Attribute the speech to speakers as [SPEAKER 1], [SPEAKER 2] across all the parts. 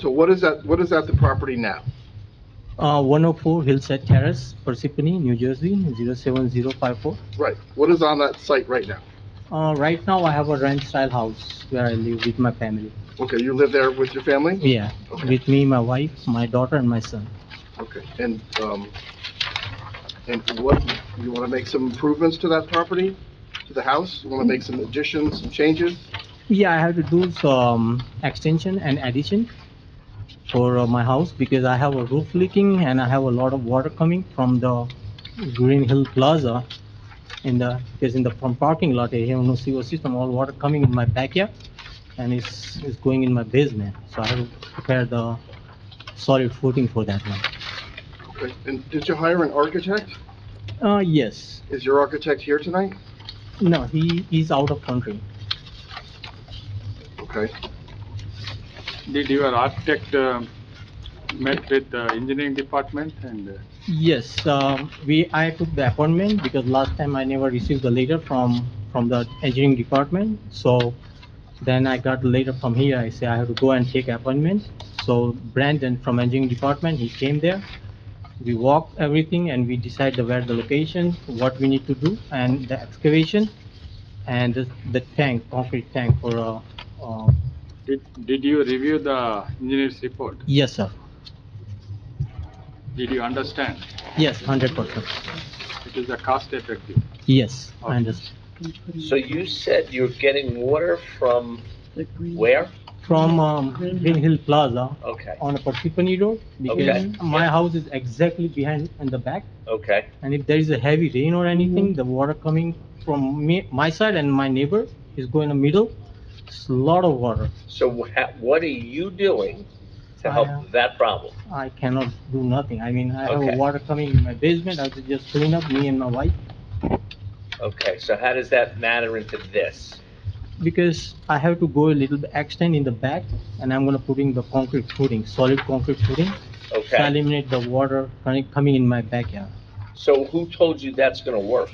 [SPEAKER 1] So what is that, what is at the property now?
[SPEAKER 2] Uh, 104 Hillside Terrace, Parsippany, New Jersey, 07054.
[SPEAKER 1] Right, what is on that site right now?
[SPEAKER 2] Uh, right now I have a ranch-style house where I live with my family.
[SPEAKER 1] Okay, you live there with your family?
[SPEAKER 2] Yeah,
[SPEAKER 1] Okay.
[SPEAKER 2] with me, my wife, my daughter, and my son.
[SPEAKER 1] Okay, and, um, and what, you wanna make some improvements to that property, to the house? You wanna make some additions, some changes?
[SPEAKER 2] Yeah, I have to do some extension and addition for uh, my house because I have a roof leaking and I have a lot of water coming from the Green Hill Plaza in the, because in the from parking lot, I have no sewer system, all water coming in my backyard and it's, it's going in my basement. So I have to prepare the solid footing for that one.
[SPEAKER 1] Okay, and did you hire an architect?
[SPEAKER 2] Uh, yes,
[SPEAKER 1] Is your architect here tonight?
[SPEAKER 2] no, he is out of country.
[SPEAKER 1] Okay,
[SPEAKER 3] Did your architect uh, met with the engineering department and, uh,
[SPEAKER 2] Yes, um, we, I took the appointment because last time I never received the letter from, from the engineering department. So then I got the letter from here, I say I have to go and take appointment. So Brandon from engineering department, he came there. We walked everything and we decided the- where the location, what we need to do and the excavation and the- the tank, concrete tank for, uh, uh,
[SPEAKER 3] did, did you review the engineer's report?
[SPEAKER 2] yes, sir.
[SPEAKER 3] Did you understand?
[SPEAKER 2] Yes, hundred percent.
[SPEAKER 3] It is a cost effective.
[SPEAKER 2] Yes, I understand.
[SPEAKER 4] So you said you're getting water from where?
[SPEAKER 2] From, um, Green Hill Plaza,
[SPEAKER 4] Okay,
[SPEAKER 2] on a Parsippany Road because
[SPEAKER 4] Okay.
[SPEAKER 2] my house is exactly behind in the back.
[SPEAKER 4] okay,
[SPEAKER 2] And if there is a heavy rain or anything,
[SPEAKER 4] Mm-hmm.
[SPEAKER 2] the water coming from me, my side and my neighbor is going in the middle. It's a lot of water.
[SPEAKER 4] so wha- what are you doing
[SPEAKER 2] I
[SPEAKER 4] to
[SPEAKER 2] am-
[SPEAKER 4] help that problem?
[SPEAKER 2] I cannot do nothing. I mean, I have a
[SPEAKER 4] Okay.
[SPEAKER 2] water coming in my basement. I have to just clean up me and my wife
[SPEAKER 4] Okay, so how does that matter into this?
[SPEAKER 2] because I have to go a little bit extend in the back and I'm gonna put in the concrete footing, solid concrete footing. to
[SPEAKER 4] Okay,
[SPEAKER 2] Eliminate the water coming coming in my backyard.
[SPEAKER 4] so who told you that's gonna work?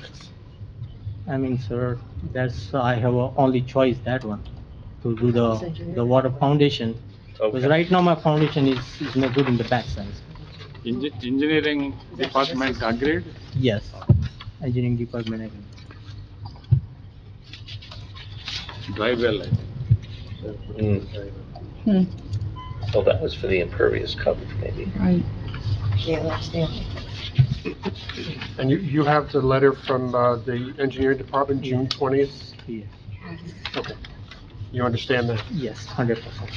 [SPEAKER 2] I mean, sir, that's, I have a only choice, that one, to do the, the water foundation. Because
[SPEAKER 4] Okay,
[SPEAKER 2] right now, my foundation is, is no good in the backside.
[SPEAKER 3] Engi- Engineering department agreed?
[SPEAKER 2] Yes, engineering department, I think.
[SPEAKER 3] Drive well, I think.
[SPEAKER 4] Mm.
[SPEAKER 5] Hmm.
[SPEAKER 4] well, that was for the impervious coverage maybe.
[SPEAKER 5] Right.
[SPEAKER 6] Yeah, that's the
[SPEAKER 7] And you, you have the letter from uh, the engineering department, June 20th?
[SPEAKER 2] Yeah.
[SPEAKER 7] Okay. You understand that?
[SPEAKER 2] yes, hundred percent.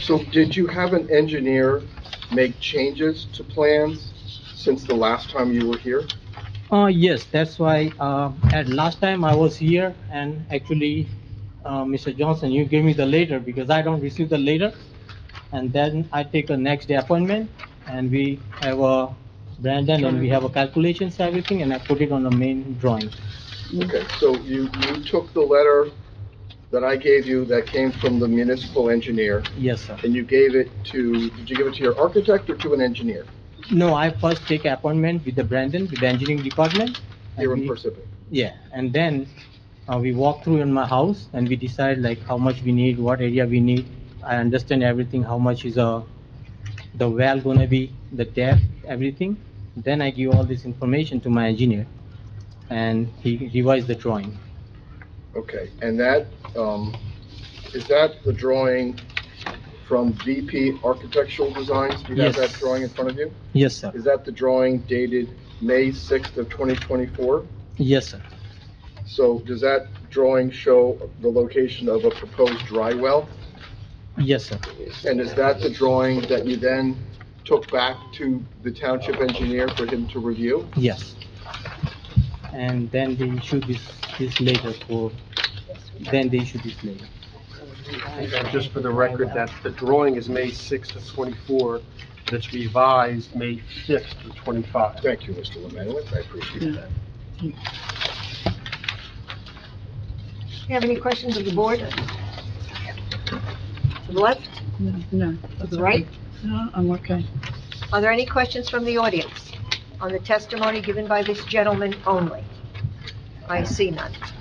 [SPEAKER 1] so did you have an engineer make changes to plans since the last time you were here?
[SPEAKER 2] Uh, yes, that's why, uh, at last time I was here, and actually, uh, Mr. Johnson, you gave me the letter, because I don't receive the letter. And then I take a next day appointment, and we have a Brandon, and we have a calculations, everything, and I put it on the main drawing.
[SPEAKER 1] Okay, so you, you took the letter that I gave you that came from the municipal engineer,
[SPEAKER 2] Yes, sir.
[SPEAKER 1] and you gave it to, did you give it to your architect or to an engineer
[SPEAKER 2] No, I first take appointment with the Brandon, with the engineering department. and
[SPEAKER 1] here in
[SPEAKER 2] we-
[SPEAKER 1] Parsippany?
[SPEAKER 2] Yeah, and then, uh, we walk through in my house and we decide like how much we need, what area we need. I understand everything, how much is, uh, the well gonna be, the depth, everything. Then I give all this information to my engineer and he revised the drawing.
[SPEAKER 1] Okay, and that, um, is that the drawing from VP Architectural Designs? Do you have
[SPEAKER 2] Yes.
[SPEAKER 1] that drawing in front of you?
[SPEAKER 2] Yes, sir.
[SPEAKER 1] Is that the drawing dated May 6th of 2024?
[SPEAKER 2] Yes, sir.
[SPEAKER 1] So does that drawing show the location of a proposed dry well?
[SPEAKER 2] Yes, sir.
[SPEAKER 1] And is that the drawing that you then took back to the township engineer for him to review?
[SPEAKER 2] Yes. And then they issue this, this later for, then they issue this later.
[SPEAKER 7] And just for the record, that the drawing is May 6th of 24, but it's revised May 5th of 25.
[SPEAKER 1] Thank you, Mr. Lemanowitz, I appreciate that.
[SPEAKER 6] You have any questions of the board? To the left,
[SPEAKER 5] No, No,
[SPEAKER 6] to the right?
[SPEAKER 5] no, I'm okay.
[SPEAKER 6] Are there any questions from the audience on the testimony given by this gentleman only? I see none.